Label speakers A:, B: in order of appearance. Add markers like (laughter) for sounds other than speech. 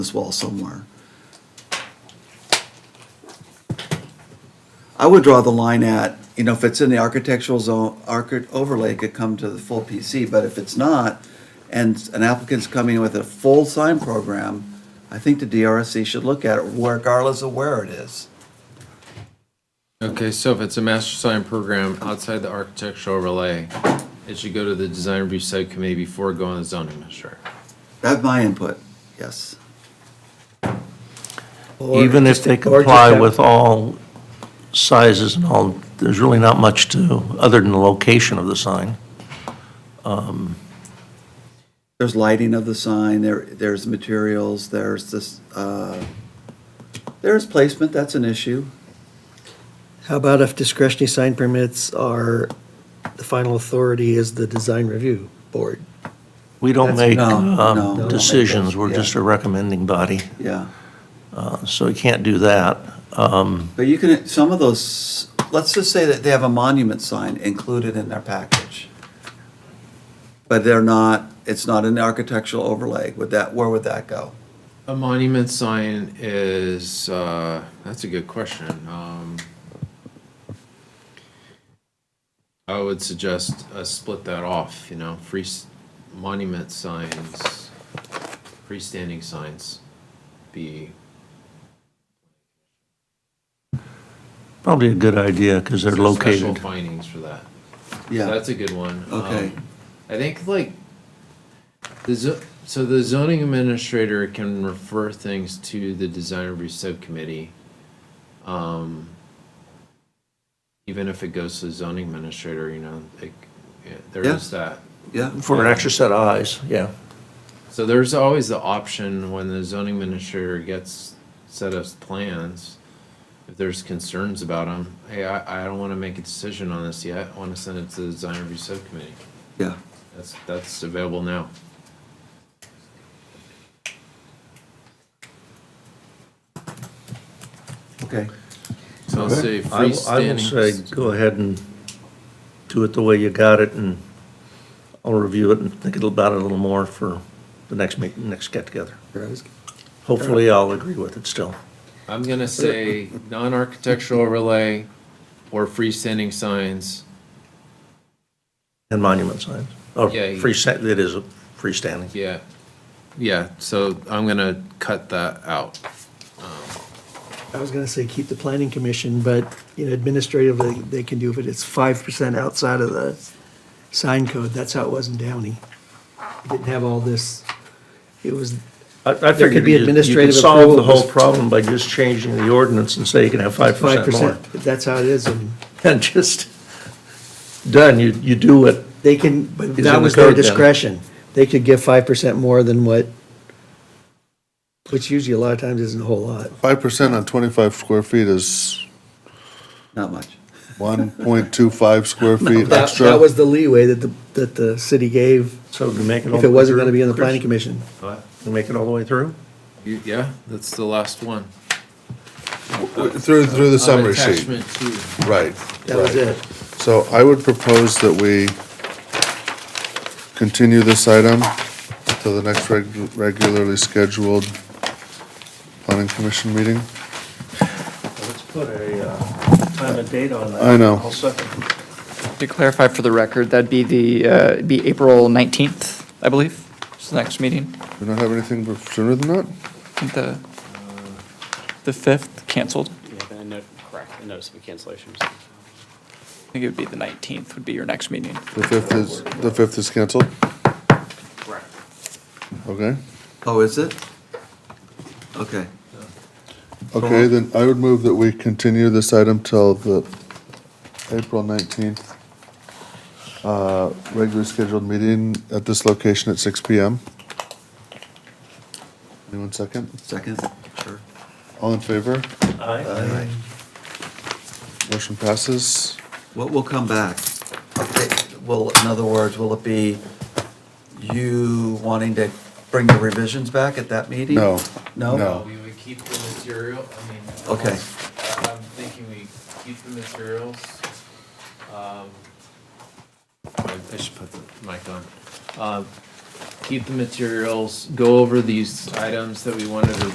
A: this wall somewhere. I would draw the line at, you know, if it's in the architectural zone, archi- overlay it could come to the full PC, but if it's not, and an applicant's coming with a full sign program, I think the DRSC should look at it regardless of where it is.
B: Okay, so if it's a master sign program outside the architectural overlay, it should go to the design review subcommittee before going to the zoning administrator.
A: That's my input, yes.
C: Or
D: Even if
C: just-
D: they
C: or just
D: comply
C: have-
D: with all sizes and all, there's really not much to, other than the location of the sign.
A: There's lighting of the sign, there, there's materials, there's this, uh, there's placement, that's an issue.
C: How about if discretionary sign permits are, the final authority is the design review board?
D: We don't make
A: no, no,
D: um,
A: we don't make
D: decisions,
A: those,
D: we're
A: yeah.
D: just a recommending body,
A: Yeah,
D: uh, so you can't do that. Um,
A: but you can, some of those, let's just say that they have a monument sign included in their package. But they're not, it's not an architectural overlay, would that, where would that go?
B: A monument sign is, uh, that's a good question. Um, I would suggest uh, split that off, you know, free s- monument signs, freestanding signs be,
D: Probably a good idea, because they're
B: special
D: located.
B: findings for that. So
A: Yeah,
B: That's a good one.
A: Okay.
B: Um, I think like, the zo- so the zoning administrator can refer things to the design review subcommittee. um, Even if it goes to the zoning administrator, you know, it, yeah, there
A: Yeah.
B: is that.
A: yeah,
D: For an extra set of eyes, yeah.
B: So there's always the option when the zoning administrator gets set of plans, if there's concerns about them, hey, I, I don't wanna make a decision on this yet, I wanna send it to the design review subcommittee.
A: yeah.
B: That's, that's available now.
A: Okay,
B: So I'll say
D: I will- I will say,
B: freestanding.
D: go ahead and do it the way you got it, and I'll review it and think about it a little more for the next, meet- next get-together.
C: Or I was-
D: Hopefully, I'll agree with it still.
B: I'm gonna say non-architectural overlay or freestanding signs.
D: And monument signs. Oh,
B: Yeah, you-
D: free, it is a freestanding.
B: Yeah, yeah, so I'm gonna cut that out.
C: I was gonna say keep the planning commission, but, you know, administratively, they can do it, it's five percent outside of the sign code, that's how it was in Downey. It Didn't have all this, it was,
D: I- I
C: There could
D: figured
C: be
D: you- you
C: administrative
D: could solve the
C: approval.
D: whole problem by just changing the ordinance and say you can have five
C: five
D: percent more.
C: percent, that's how it is, and
D: (laughs) And just, done, you, you do what,
C: they can, but
D: in
C: that
D: the
C: was their
D: code then.
C: discretion. They could give five percent more than what, which usually a lot of times isn't a whole lot.
E: Five percent on twenty-five square feet is
A: not much.
E: one point two five square feet
C: That,
E: extra.
C: that was the leeway that the, that the city gave
D: so to make it all.
C: if it wasn't gonna be in the
D: Chris,
C: planning commission.
D: to Make it all the way through?
B: You- Yeah, that's the last one.
E: Through, through the summary sheet,
B: Attachment two.
E: right.
C: That was
E: right.
C: it.
E: So I would propose that we continue this item to the next reg- regularly scheduled planning commission meeting.
D: Let's put a uh, time and date on that.
E: I know.
D: I'll
E: I'll
D: second.
F: To clarify for the record, that'd be the, uh, it'd be April 19th, I believe, is the next meeting.
E: Do we not have anything sooner than that?
F: I think the, the 5th canceled.
G: Yeah, then a note, correct, a notice of cancellation.
F: I think it would be the 19th would be your next meeting.
E: The fifth is, the fifth is canceled,
G: Correct.
E: okay?
A: Oh, is it? Okay,
E: Okay, then I would move that we continue this item till the April nineteenth, uh, regularly scheduled meeting at this location at six P M. Anyone second?
A: second, sure.
E: All in favor?
A: All right.
E: Motion passes.
A: Well, we'll come back. Okay, Well, in other words, will it be you wanting to bring the revisions back at that meeting?
E: No.
A: No?
E: No.
B: We would keep the material, I mean.
A: Okay.
B: unless- I- I'm thinking we keep the materials. um, I I should put the mic on. Um, keep the materials, go over these items that we wanted to